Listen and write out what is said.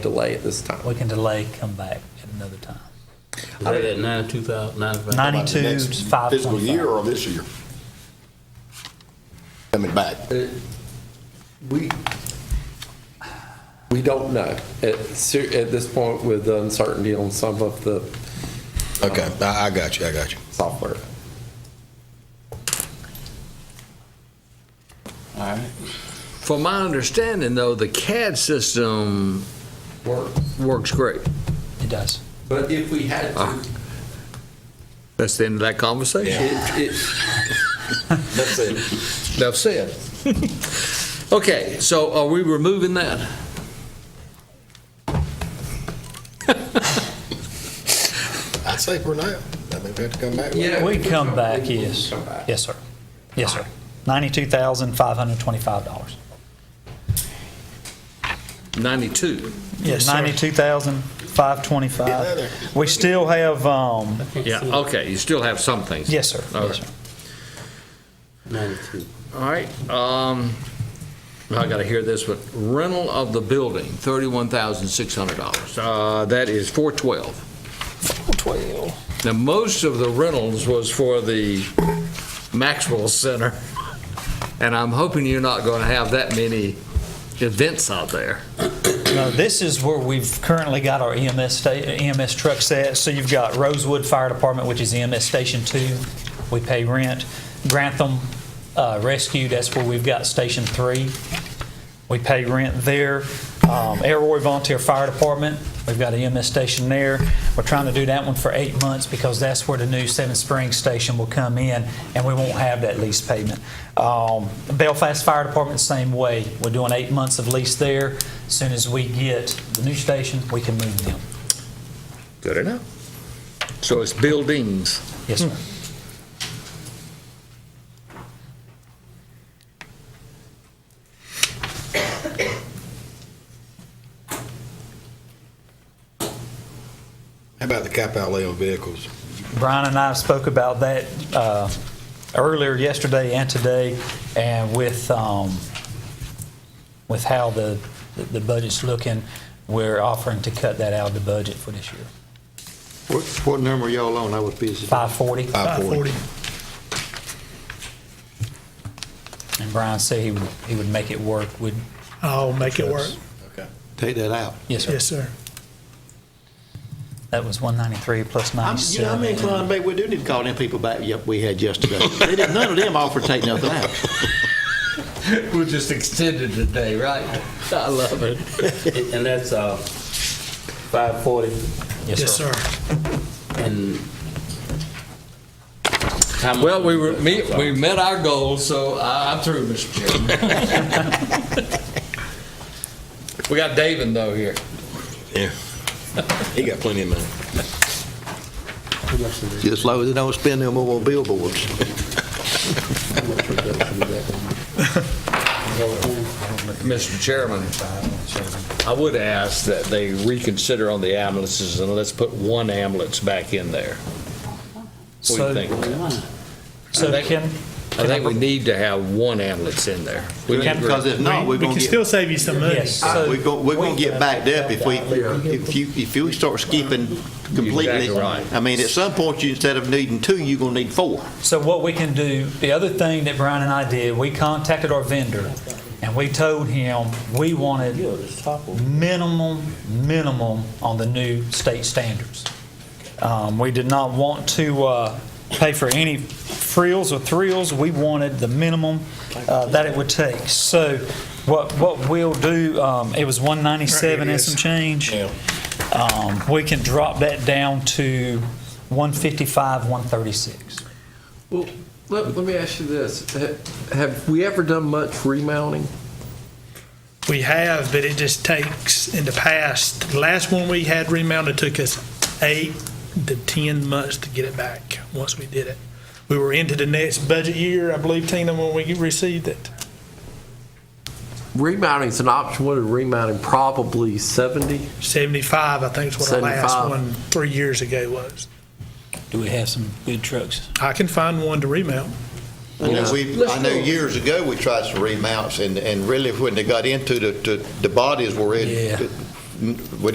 delay at this time. We can delay, come back at another time. Is that at ninety-two thousand, ninety-five? About the 92, next 525. Fiscal year or this year? Coming back. uh, We, we don't know at, ser- at this point with the uncertainty on some of the Okay, I, I got you, I got you. software. From my understanding, though, the CAD system work. works great. Uh, It does. But if we had to, That's the end of that conversation. it, it, That's it. Enough said. Okay, so are we removing that? I'd say for now, I think we have to come back. yeah. We come back, we can yes. come back. Yes, sir. Yes, sir. $92,525. Ninety-two. Yes, sir. Get out of there. 92,525. We still have, um, Yeah, okay, you still have some things. yes, sir. Yes, Okay. sir. Ninety-two. All right, um, I gotta hear this, but rental of the building, thirty-one thousand six hundred dollars. Uh, that is four twelve. Four twelve. Now, most of the rentals was for the Maxwell Center, and I'm hoping you're not gonna have that many events out there. Now, this is where we've currently got our EMS, sta- EMS truck set. So you've got Rosewood Fire Department, which is EMS Station 2. We pay rent. Grantham uh, Rescue, that's where we've got Station 3. We pay rent there. Um, Elroy Volunteer Fire Department, we've got an EMS station there. We're trying to do that one for eight months because that's where the new Seven Springs station will come in, and we won't have that lease payment. Um, Belfast Fire Department, same way. We're doing eight months of lease there. As Soon as we get the new station, we can move them. Good enough. So it's buildings. Yes, sir. How about the cap outlay on vehicles? Brian and I spoke about that uh, earlier yesterday and today, and with, um, with how the, the budget's looking, we're offering to cut that out of the budget for this year. What, what number y'all on? I was busy. 540, Five forty. and Brian said he would, he would make it work, would, I'll make it work. Okay. Take that out. yes, sir. Yes, sir. That was 193 plus I'm, you know, I'm 97. inclined, maybe we do need to call them people back, yep, we had yesterday. They didn't, none of them offered to take nothing out. We're just extended today, right? I love it. And that's, uh, five forty, Yes, sir. and. Well, we were, me- we met our goal, so I- I'm through, Mr. Chairman. We got David though here. Yeah. He got plenty of money. Just as long as they don't spend them over on billboards. Mr. Chairman, I would ask that they reconsider on the ambulances and let's put one ambulance back in there. What do you So- think? I So think- can, I think we need to have one ambulance in there. We can agree. Because if not, we're We gonna can get, still save you some money. yes. so- we're gonna, we're gonna get backed up if we, if you, if you start skipping completely. Exactly right. I mean, at some point, you, instead of needing two, you're gonna need four. So what we can do, the other thing that Brian and I did, we contacted our vendor and we told him we wanted minimum, minimum on the new state standards. Um, we did not want to, uh, pay for any frills or thrills. We wanted the minimum, uh, that it would take. So what, what we'll do, um, it was one ninety-seven and some change. Um, we can drop that down to one fifty-five, one thirty-six. Well, let, let me ask you this. Ha- Have we ever done much remounting? We have, but it just takes, in the past, the last one we had remounted took us eight to 10 months to get it back, once we did it. We were into the next budget year, I believe, Tina, when we received it. Remounting's an option. What is remounting? Probably 70? 75, I think is what our last 75. one, three years ago was. Do we have some good trucks? I can find one to remount. I know we, I know years ago, we tried some remounts, and, and really, when they got into the, the, the bodies were in, Yeah. we